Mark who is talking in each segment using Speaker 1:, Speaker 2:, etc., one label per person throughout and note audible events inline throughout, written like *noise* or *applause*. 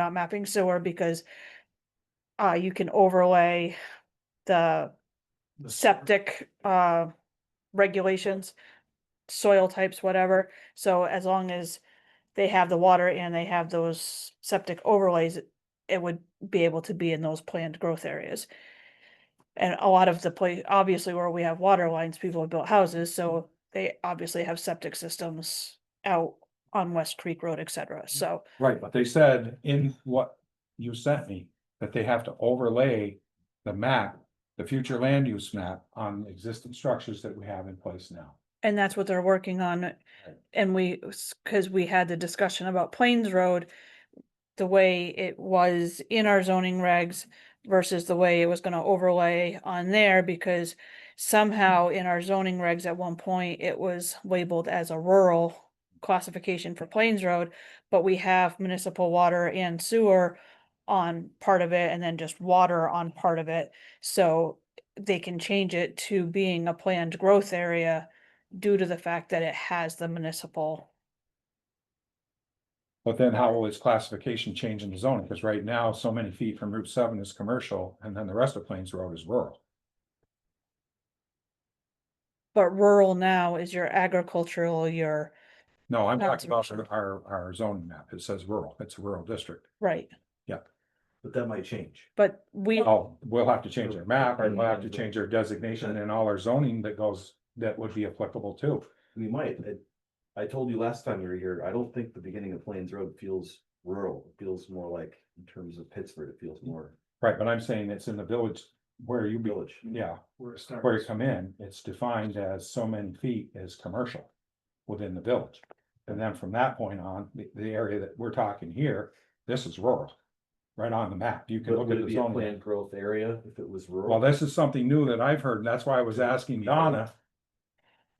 Speaker 1: not mapping sewer because uh, you can overlay the
Speaker 2: The sewer.
Speaker 1: septic uh, regulations, soil types, whatever. So as long as they have the water and they have those septic overlays, it would be able to be in those planned growth areas. And a lot of the place, obviously where we have water lines, people have built houses, so they obviously have septic systems out on West Creek Road, et cetera,
Speaker 2: Mm-hmm.
Speaker 1: so.
Speaker 2: Right, but they said in what you sent me, that they have to overlay the map, the future land use map on existing structures that we have in place now.
Speaker 1: And that's what they're working on. uh, And we, because we had the discussion about Plains Road, the way it was in our zoning regs versus the way it was gonna overlay on there, because somehow in our zoning regs at one point, it was labeled as a rural classification for Plains Road, but we have municipal water and sewer on part of it and then just water on part of it. So they can change it to being a planned growth area due to the fact that it has the municipal.
Speaker 2: But then how will its classification change in the zoning? Because right now, so many feet from Route seven is commercial, and then the rest of Plains Road is rural.
Speaker 1: But rural now is your agricultural, your,
Speaker 2: No, I'm
Speaker 1: Not
Speaker 2: talking about
Speaker 1: commercial.
Speaker 2: our, our zoning map. It says rural. It's a rural district.
Speaker 1: right,
Speaker 3: But that might change.
Speaker 1: but we,
Speaker 2: Oh, we'll have to change our map, and we'll have to change our designation and all our zoning that goes, that would be applicable too.
Speaker 3: We might. It- I told you last time you were here, I don't think the beginning of Plains Road feels rural. It feels more like, in terms of Pittsburgh, it feels more
Speaker 2: Right, but I'm saying it's in the village where you be,
Speaker 3: village.
Speaker 2: yeah,
Speaker 4: Where it starts.
Speaker 2: where you come in, it's defined as so many feet is commercial within the village. And then from that point on, the, the area that we're talking here, this is rural, right on the map. You can
Speaker 3: But
Speaker 2: look
Speaker 3: would
Speaker 2: at
Speaker 3: it
Speaker 2: the
Speaker 3: be a
Speaker 2: zone.
Speaker 3: planned growth area if it was rural?
Speaker 2: Well, this is something new that I've heard, and that's why I was asking Donna.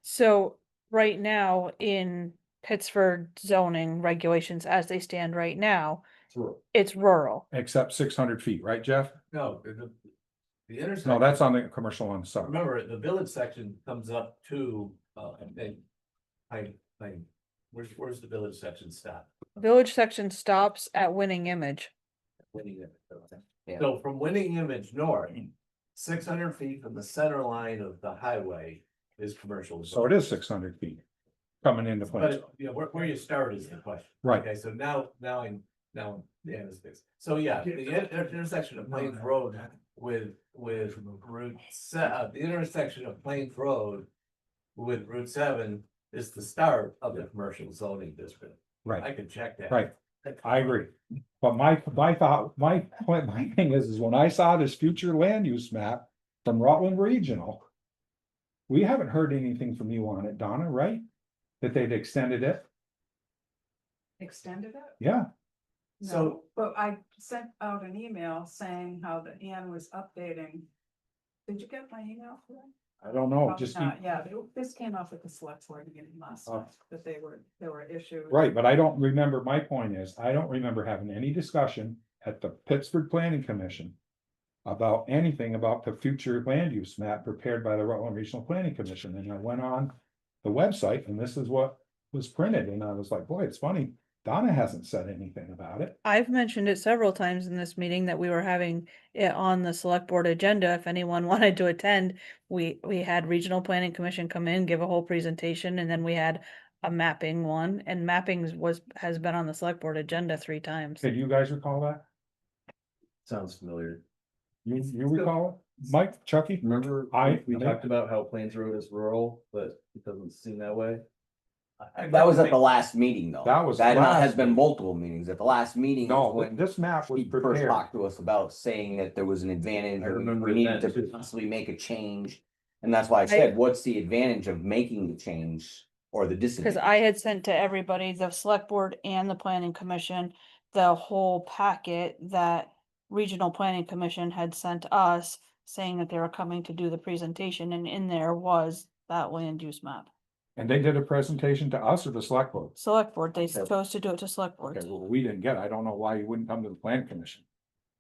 Speaker 1: so right now in Pittsford zoning regulations as they stand right now,
Speaker 3: It's rural.
Speaker 1: it's rural.
Speaker 2: Except six hundred feet, right, Jeff?
Speaker 4: No, the, the- the
Speaker 2: No,
Speaker 4: intersection,
Speaker 2: that's on the commercial on the side.
Speaker 4: remember, the village section comes up to, uh, I think. I, I, where's, where's the village section stop?
Speaker 1: Village section stops at winning image.
Speaker 4: Winning Image.
Speaker 3: Yeah.
Speaker 4: So from Winning Image North,
Speaker 2: Hmm.
Speaker 4: six hundred feet from the center line of the highway is commercial.
Speaker 2: So it is six hundred feet coming into place,
Speaker 4: But, yeah, where, where you start is the question.
Speaker 2: right?
Speaker 4: Okay, so now, now I'm, now, I'm yeah, this fixed. So yeah, the in- intersection of Plains Road with, with Route se- uh, the intersection of Plains Road. With Route seven is the start of the commercial zoning district.
Speaker 2: Right.
Speaker 4: I can check that.
Speaker 2: Right. I agree. But my, my thought, my point, my thing is, is when I saw this future land use map from Rutland Regional. We haven't heard anything from you on it, Donna, right? That they'd extended it,
Speaker 5: extended it?
Speaker 2: yeah,
Speaker 5: No,
Speaker 4: So-
Speaker 5: But I sent out an email saying how the Ann was updating. Did you get my email? for that?
Speaker 2: I don't know, Oh, just,
Speaker 5: Probably
Speaker 2: keep-
Speaker 5: not. Yeah, they- this came off at the select board meeting last
Speaker 2: Oh.
Speaker 5: month, that they were, there were issues.
Speaker 2: right, but I don't remember, my point is, I don't remember having any discussion at the Pittsburgh Planning Commission. About anything about the future land use map prepared by the Rutland Regional Planning Commission, and I went on the website, and this is what was printed, and I was like, boy, it's funny. Donna hasn't said anything about it.
Speaker 1: I've mentioned it several times in this meeting that we were having it on the select board agenda. If anyone *laughs* wanted to attend, we, we had regional planning commission come in, give a whole presentation, and then we had a mapping one, and mappings was, has been on the select board agenda three times.
Speaker 2: Can you guys recall that?
Speaker 3: Sounds familiar.
Speaker 2: You, you recall it? Mike, Chucky?
Speaker 3: Remember,
Speaker 2: I-
Speaker 3: we talked about how Plains Road is rural, but it doesn't seem that way.
Speaker 6: That was at the last meeting, though.
Speaker 2: That was the
Speaker 6: That
Speaker 2: last
Speaker 6: has been
Speaker 2: meeting.
Speaker 6: multiple meetings. At the last meeting. is
Speaker 2: No,
Speaker 6: when
Speaker 2: this map was
Speaker 6: He first
Speaker 2: prepared.
Speaker 6: talked to us about saying that there was an advantage
Speaker 3: I
Speaker 6: or
Speaker 3: remember
Speaker 6: we needed
Speaker 3: that,
Speaker 6: to
Speaker 3: too.
Speaker 6: possibly make a change. And that's why I said, what's the advantage of making the change or the
Speaker 1: Because
Speaker 6: disadvantage?
Speaker 1: I had sent to everybody, the select board and the planning commission, the whole packet that regional planning commission had sent us saying that they were coming to do the presentation, and in there was that land use map.
Speaker 2: And they did a presentation to us or the select board.
Speaker 1: Select board, they
Speaker 6: Okay.
Speaker 1: chose to do it to select
Speaker 2: Okay,
Speaker 1: board.
Speaker 2: well, we didn't get, it. I don't know why you wouldn't come to the plan commission.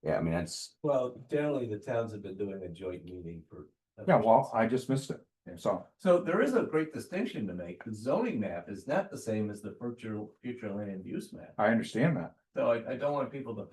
Speaker 6: Yeah, I mean, that's,
Speaker 4: Well, generally, the towns have been doing a joint meeting for.
Speaker 2: Yeah, well, I just missed it. And so,
Speaker 4: So there is a great distinction to make. The zoning map is not the same as the future, future land use map.
Speaker 2: I understand that.
Speaker 4: So I, I don't want people to